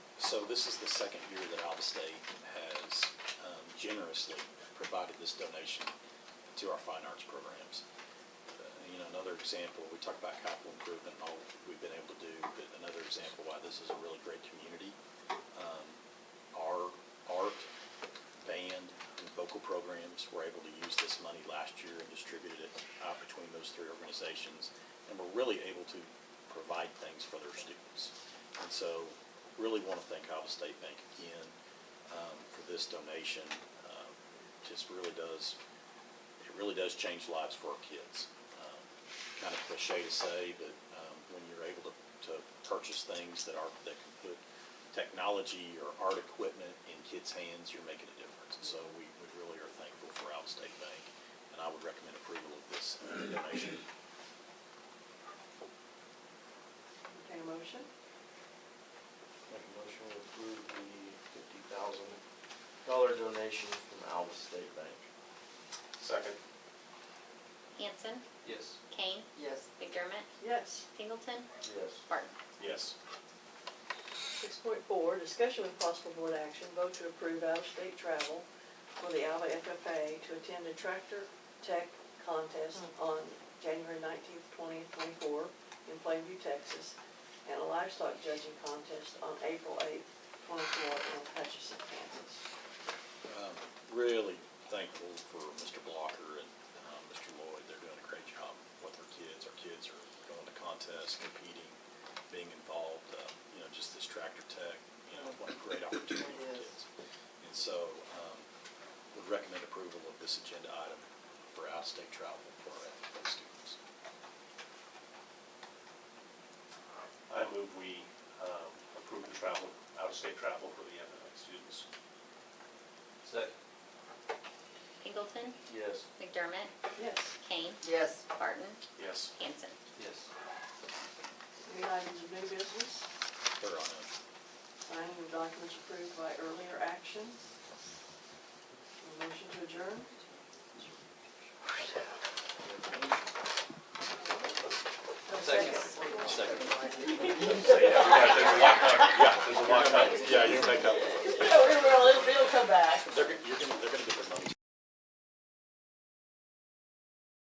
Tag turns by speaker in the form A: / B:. A: So this is the second year that Alva State has um, generously provided this donation to our fine arts programs. Uh, You know, another example, we talk about capital improvement and all we've been able to do, but another example why this is a really great community. um, Our art, band, and vocal programs were able to use this money last year and distribute it out between those three organizations. And were really able to provide things for their students. And so really want to thank Iowa State Bank again um, for this donation. Um, Just really does, it really does change lives for our kids. Um, Kind of cliche to say, but um, when you're able to, to purchase things that are, that can put technology or art equipment in kids' hands, you're making a difference. And so we, we really are thankful for Iowa State Bank, and I would recommend approval of this donation.
B: Entertain a motion?
C: Make a motion to approve the fifty thousand dollar donation from Alva State Bank.
D: Second.
E: Hanson,
D: Yes.
E: Kane,
B: Yes.
E: McDermott,
B: Yes.
E: Singleton,
C: Yes.
E: Barton.
A: Yes.
B: Six point four, discussion with possible board action, vote to approve out-of-state travel for the Alva FFA to attend a tractor tech contest on January nineteenth, twentieth, twenty-four in Plainview, Texas, and a livestock judging contest on April eighth, twenty-four in Hutchinson, Kansas.
A: Um, Really thankful for Mr. Blocker and um, Mr. Lloyd. They're doing a great job with our kids. Our kids are going to contests, competing, being involved, uh, you know, just this tractor tech, you know, what a great opportunity for
B: It is.
A: kids. And so um, would recommend approval of this agenda item for out-of-state travel for our FFA students.
D: I move we um, approve the travel, out-of-state travel for the MNI students.
C: Second.
E: Singleton,
C: Yes.
E: McDermott,
B: Yes.
E: Kane,
B: Yes.
E: Barton,
D: Yes.
E: Hanson.
C: Yes.
B: Any items of new business?
A: They're on a
B: Signing of documents approved by earlier action. A motion to adjourn?
A: second.
D: Yeah, we got that. We got that.